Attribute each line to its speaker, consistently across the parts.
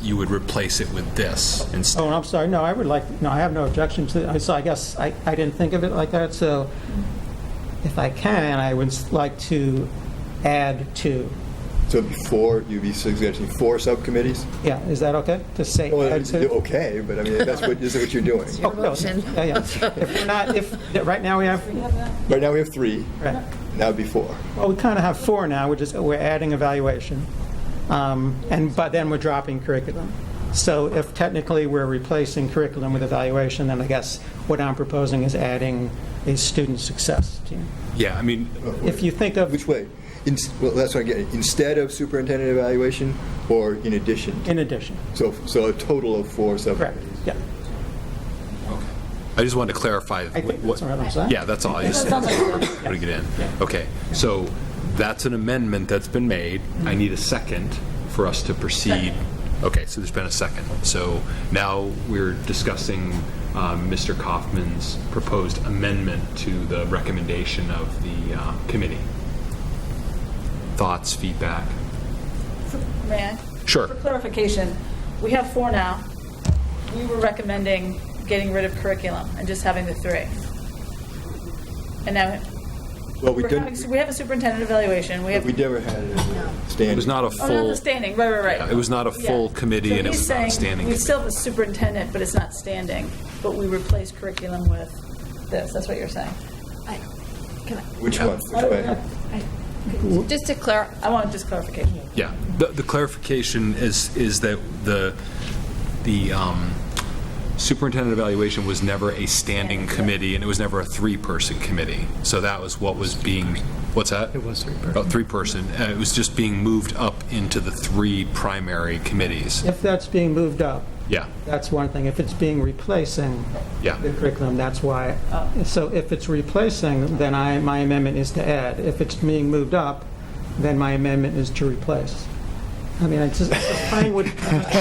Speaker 1: you would replace it with this instead.
Speaker 2: Oh, and I'm sorry, no, I would like, no, I have no objection to, I- so I guess I, I didn't think of it like that, so if I can, I would like to add to,
Speaker 3: So it'd be four, you'd be suggesting four subcommittees?
Speaker 2: yeah, is that okay? To say
Speaker 3: Well,
Speaker 2: add
Speaker 3: it's
Speaker 2: to?
Speaker 3: okay, but I mean, that's what, this is what you're doing.
Speaker 2: Oh, no, yeah, yeah. If we're not, if, right now we have,
Speaker 3: Right now, we have three,
Speaker 2: right.
Speaker 3: now it'd be four.
Speaker 2: well, we kind of have four now, we're just, we're adding evaluation. Um, And, but then we're dropping curriculum. So if technically we're replacing curriculum with evaluation, then I guess what I'm proposing is adding a student success team.
Speaker 1: Oh, Yeah, I mean,
Speaker 2: If you think of
Speaker 3: Which way? In- Well, that's what I'm getting, instead of superintendent evaluation or in addition? to-
Speaker 2: In addition,
Speaker 3: So, so a total of four
Speaker 2: correct,
Speaker 3: subcommittees?
Speaker 2: yeah.
Speaker 1: I just wanted to clarify.
Speaker 2: I think
Speaker 1: what-
Speaker 2: that's what I'm saying.
Speaker 1: Yeah, that's all, I just putting it in. Okay, so that's an amendment that's been made. I need a second for us to proceed. Okay, so there's been a second. So now we're discussing um, Mr. Kaufman's proposed amendment to the recommendation of the uh, committee. Thoughts, feedback?
Speaker 4: May I?
Speaker 1: Sure.
Speaker 4: For clarification, we have four now. We were recommending getting rid of curriculum and just having the three. And now,
Speaker 3: Well, we
Speaker 4: we're having,
Speaker 3: didn't,
Speaker 4: we have a superintendent evaluation, we have,
Speaker 3: we never had it standing.
Speaker 1: It was not a
Speaker 4: oh, not
Speaker 1: full,
Speaker 4: the standing, right, right,
Speaker 1: Yeah,
Speaker 4: right.
Speaker 1: it was not a
Speaker 4: Yeah.
Speaker 1: full committee
Speaker 4: So
Speaker 1: and it
Speaker 4: he's
Speaker 1: was not a
Speaker 4: saying
Speaker 1: standing
Speaker 4: We
Speaker 1: committee.
Speaker 4: still have a superintendent, but it's not standing, but we replace curriculum with this, that's what you're saying.
Speaker 5: I- can I-
Speaker 3: Which one? Which way?
Speaker 5: I- Just to clarify,
Speaker 4: I want just clarification.
Speaker 1: Yeah, the, the clarification is, is that the, the um, superintendent evaluation was never a standing committee, and it was never a three-person committee. So that was what was being, what's that? It was three-person. Oh, three-person, Uh, it was just being moved up into the three primary committees.
Speaker 2: If that's being moved up,
Speaker 1: Yeah,
Speaker 2: that's one thing. If it's being replacing
Speaker 1: Yeah.
Speaker 2: the curriculum, that's why. So if it's replacing, then I, my amendment is to add. If it's being moved up, then my amendment is to replace. I mean, it's just, it's fine with,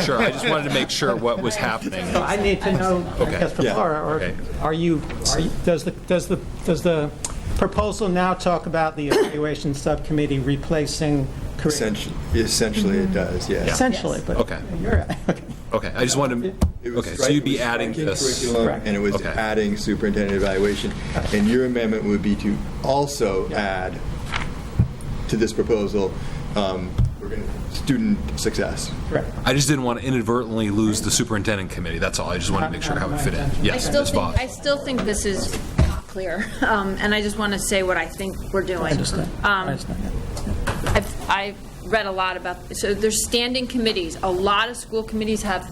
Speaker 1: sure, I just wanted to make sure what was happening.
Speaker 2: So I need to know, I guess, from
Speaker 3: yeah,
Speaker 2: Laura, or
Speaker 1: okay.
Speaker 2: are you, are you- does the, does the, does the proposal now talk about the evaluation subcommittee replacing curriculum?
Speaker 3: Essentially, essentially
Speaker 2: Mm-hmm.
Speaker 3: it does, yeah.
Speaker 2: Essentially, but.
Speaker 1: Okay.
Speaker 2: You're, okay.
Speaker 1: Okay, I just wanted
Speaker 3: It
Speaker 1: to,
Speaker 3: was
Speaker 1: okay, so
Speaker 3: stri-
Speaker 1: you'd
Speaker 3: it
Speaker 1: be
Speaker 3: was
Speaker 1: adding
Speaker 3: striking
Speaker 1: this.
Speaker 3: curriculum,
Speaker 2: Correct.
Speaker 3: And it was
Speaker 1: Okay.
Speaker 3: adding superintendent evaluation. And your amendment would be to also add to this proposal, um, we're gonna- student success.
Speaker 2: Correct.
Speaker 1: I just didn't want to inadvertently lose the superintendent committee, that's all. I just wanted to make sure how it fit in.
Speaker 5: I
Speaker 1: Yes,
Speaker 5: still
Speaker 1: Ms.
Speaker 5: think,
Speaker 1: Voss.
Speaker 5: I still think this is not clear, Um, and I just want to say what I think we're doing. Um, I've, I've read a lot about, so there's standing committees. A lot of school committees have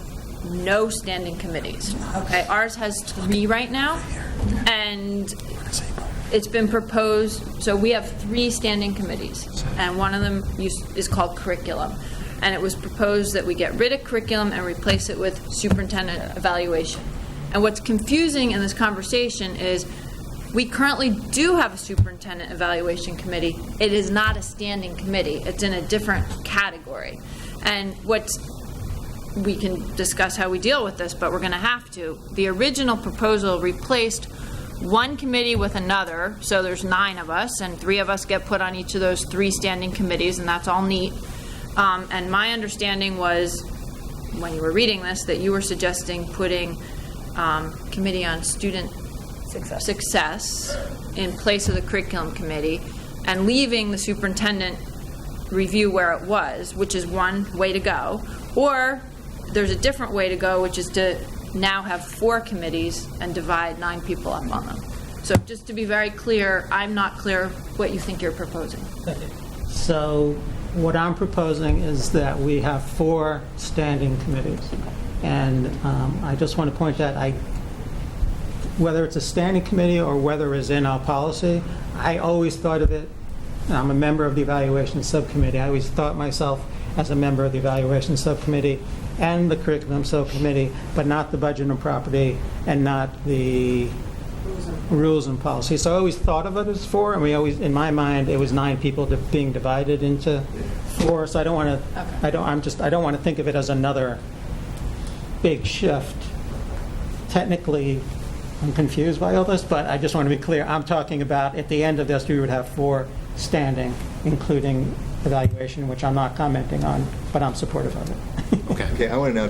Speaker 5: no standing committees. Okay, ours has three right now, and it's been proposed, so we have three standing committees, and one of them us- is called curriculum. And it was proposed that we get rid of curriculum and replace it with superintendent evaluation. And what's confusing in this conversation is, we currently do have a superintendent evaluation committee. It is not a standing committee. It's in a different category. And what's we can discuss how we deal with this, but we're going to have to. The original proposal replaced one committee with another, so there's nine of us, and three of us get put on each of those three standing committees, and that's all neat. Um, and my understanding was, when you were reading this, that you were suggesting putting um, committee on student
Speaker 4: Success.
Speaker 5: success in place of the curriculum committee, and leaving the superintendent review where it was, which is one way to go. Or there's a different way to go, which is to now have four committees and divide nine people up on them. So just to be very clear, I'm not clear what you think you're proposing.
Speaker 2: So what I'm proposing is that we have four standing committees. And um, I just want to point that I, whether it's a standing committee or whether it's in our policy, I always thought of it, and I'm a member of the evaluation subcommittee, I always thought myself as a member of the evaluation subcommittee and the curriculum subcommittee, but not the budget and property and not the rules and policies. So I always thought of it as four, and we always, in my mind, it was nine people di- being divided into four, so I don't want to, I don't, I'm just, I don't want to think of it as another big shift. Technically, I'm confused by all this, but I just want to be clear, I'm talking about, at the end of this, we would have four standing, including evaluation, which I'm not commenting on, but I'm supportive of it.
Speaker 1: Okay.
Speaker 3: Okay, I want to know